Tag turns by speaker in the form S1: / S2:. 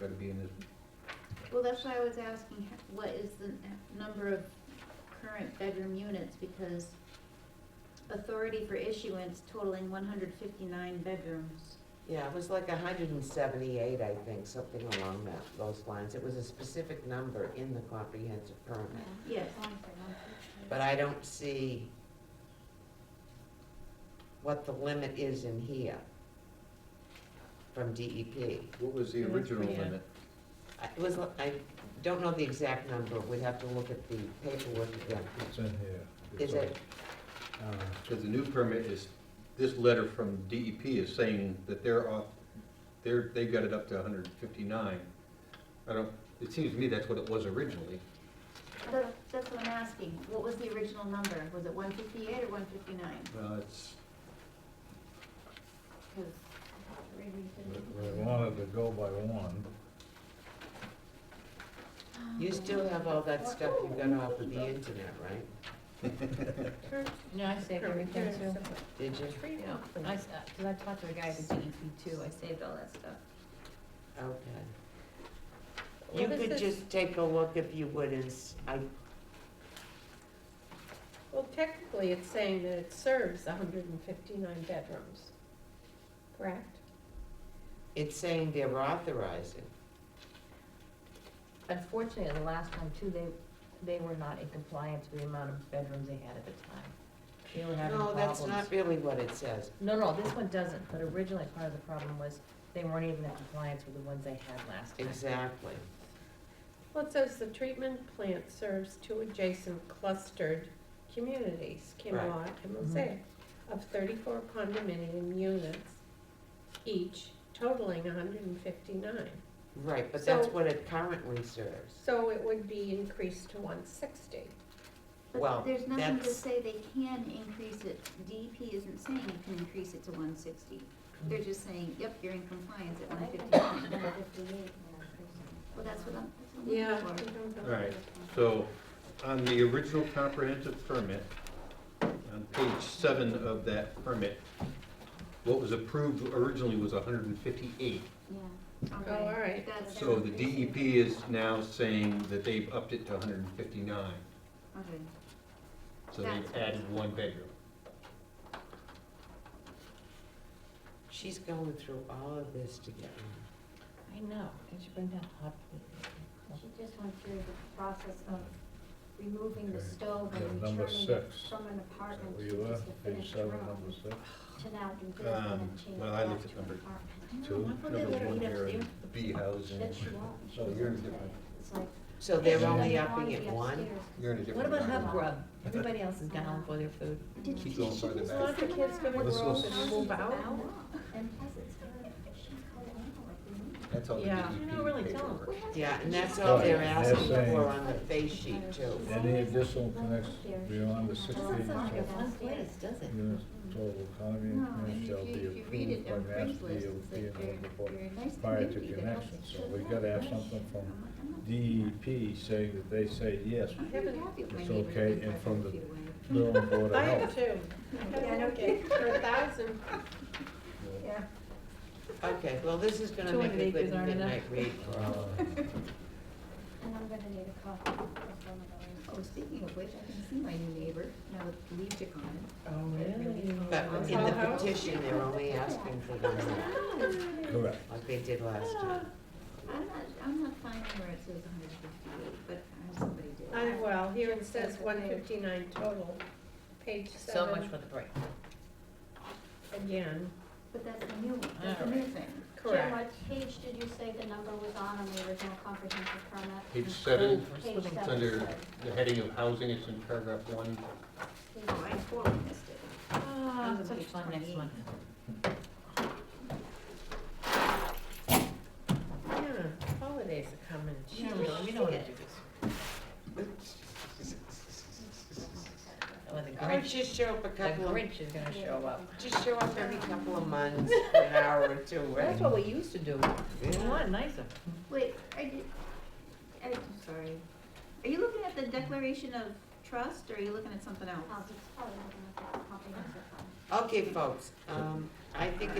S1: gotta be in this,
S2: Well, that's why I was asking, h- what is the n- number of current bedroom units, because authority for issuance totaling one hundred fifty-nine bedrooms.
S3: Yeah, it was like hundred and seventy-eight, I think, something along that, those lines. It was a specific number in the comprehensive permit.
S2: Yes,
S3: But I don't see what the limit is in here from DEP.
S1: what was the
S4: It was
S1: original
S4: pretty, uh,
S1: limit?
S3: I- It was, I don't know the exact number, we'd have to look at the paperwork again.
S5: It's in here.
S3: Is it,
S5: Uh,
S1: Because the new permit is, this letter from DEP is saying that they're off, they're, they've got it up to hundred and fifty-nine. I don't, it seems to me that's what it was originally.
S2: that's, that's what I'm asking, what was the original number, was it one fifty-eight or one fifty-nine?
S1: Well, it's,
S5: we- We wanted to go by one.
S3: you still have all that stuff you got off of the internet, right?
S4: No, I saved everything too.
S3: Did you?
S4: Yeah, I, s- uh, cause I talked to the guy at the DEP too, I saved all that stuff.
S3: Okay. You
S4: What is
S3: could
S4: this?
S3: just take a look if you would, and s- I,
S6: Well, technically, it's saying that it serves hundred and fifty-nine bedrooms, correct?
S3: it's saying they're authorizing.
S4: Unfortunately, the last time too, they, they were not in compliance with the amount of bedrooms they had at the time. They were having
S3: No,
S4: problems.
S3: that's not really what it says.
S4: No, no, this one doesn't, but originally part of the problem was they weren't even in compliance with the ones they had last time.
S3: Exactly.
S6: Well, it says the treatment plant serves two adjacent clustered communities, Kinlock and
S7: Mm-hmm.
S6: Mosaic, of thirty-four condominium units each totaling hundred and fifty-nine.
S3: Right, but that's
S6: So-
S3: what it currently serves.
S6: So it would be increased to one sixty.
S3: Well,
S2: But there's nothing to
S3: that's-
S2: say they can increase it, DEP isn't saying you can increase it to one sixty, they're just saying, yep, you're in compliance at one fifty-nine. Well, that's what I'm, that's what I'm looking for.
S1: all right, so on the original comprehensive permit, on page seven of that permit, what was approved originally was hundred and fifty-eight.
S2: Yeah.
S6: Oh, all right.
S2: That's-
S1: So the DEP is now saying that they've upped it to hundred and fifty-nine,
S2: Okay.
S1: so they've added one bedroom.
S3: She's going through all of this to get one.
S4: I know, did you bring down hot plate?
S7: She just went through the process of removing the
S5: Okay.
S7: stove
S5: Yeah,
S7: and
S5: number
S7: returning it
S5: six.
S7: from an
S5: Is that
S7: apartment
S5: where
S7: to
S5: you were?
S7: just a
S5: Page
S7: finished
S5: seven,
S7: room
S5: number six?
S7: to now do building
S1: Um,
S7: and change it
S1: well, I
S7: back
S1: looked at
S7: to an
S1: number-
S7: apartment.
S5: Two.
S1: Number one here in B housing.
S7: That she won't, she
S5: Oh,
S7: was
S5: you're
S7: in
S5: in
S7: today.
S5: different-
S7: It's like.
S3: So
S7: she
S3: they're
S7: doesn't
S3: only
S7: wanna
S3: upping
S7: be
S3: it one?
S7: upstairs. Uh-huh.
S1: You're in a different.
S4: What about
S1: room.
S4: Hub Grub? Everybody else is down for their food.
S2: Did
S1: Keep
S2: she-
S1: going
S2: she
S1: further
S2: was
S1: back.
S2: lost
S6: Aren't the kids gonna
S2: in
S6: grow
S2: our
S6: up and move
S2: house?
S6: out?
S7: And plus it's her, she's going out like we need.
S1: That's all the
S6: Yeah.
S1: DEP
S4: You're not really telling.
S1: paperwork.
S3: Yeah, and that's all they're
S5: Right, they're
S3: asking
S5: saying-
S3: for on the face sheet too.
S5: Any additional connections beyond the
S4: Doesn't
S5: sixteen
S4: sound like a
S5: shall-
S4: fun place, does it?
S5: units total economy
S2: No,
S5: Mm, and
S2: and if
S5: units shall
S2: you,
S5: be
S2: if you read
S5: approved
S2: it
S5: by
S2: on
S5: Mass
S2: Craigslist, it's
S5: DOT
S2: like
S5: and
S2: you're,
S5: all before-
S2: you're a nice
S5: prior to
S2: community that helps
S5: connection,
S2: each
S5: so
S2: other
S5: we
S2: out.
S5: gotta have
S2: I'm-
S5: something from
S2: I'm
S5: E
S2: not- I'm not-
S5: DEP saying that they say yes,
S2: I'm pretty happy with my
S5: it's
S2: neighbor
S5: okay,
S2: being
S5: and
S2: five
S5: from
S2: hundred
S5: the-
S2: feet away.
S5: Bill and Board
S6: I
S5: of
S6: have
S5: Health.
S6: two.
S7: Yeah, I know.
S6: Okay, For a thousand.
S7: Yeah.
S3: Okay, well, this is gonna
S4: Two
S3: make a
S4: hundred
S3: good
S4: acres aren't enough.
S3: midnight read for all.
S5: Uh,
S7: And I'm gonna need a coffee as well, my
S2: Oh, speaking of which, I can see my new neighbor now with the leaves are gone.
S4: Oh, really?
S3: But in the
S6: Somehow.
S3: petition, they're only asking for one,
S5: Correct.
S3: like they did last time.
S2: I'm not, I'm not finding where it says hundred fifty-eight, but uh, somebody did.
S6: I, well, here it says one fifty-nine total, page
S4: So much
S6: seven,
S4: for the break.
S6: again,
S2: But that's the new one, that's the
S4: All
S2: new
S4: right.
S2: thing.
S7: Jim,
S6: correct.
S7: what page did you say the number was on on the original comprehensive permit?
S1: Page seven,
S4: Cool.
S7: Page
S4: It's
S7: seven.
S1: it's under the heading of housing, it's in paragraph one.
S2: Oh, I totally missed it.
S4: Ah,
S2: Those are
S4: such
S2: page
S4: fun, next
S2: 28.
S4: one.
S6: Yeah, holidays are coming,
S4: Gee,
S6: Gee,
S4: really, we don't wanna do this. Oh, the
S3: All right,
S4: Grinch,
S3: just show up a
S4: the
S3: couple of,
S4: Grinch is gonna show up.
S3: just show up every couple of months, for an hour or two, right?
S4: That's what we used to do. It's a
S3: Yeah.
S4: lot nicer.
S2: Wait, I did, I, I'm sorry. Are you looking at the declaration of trust, or are you looking at something else?
S7: oh, Um, it's probably not gonna be comprehensive permit.
S3: Okay, folks, um, I think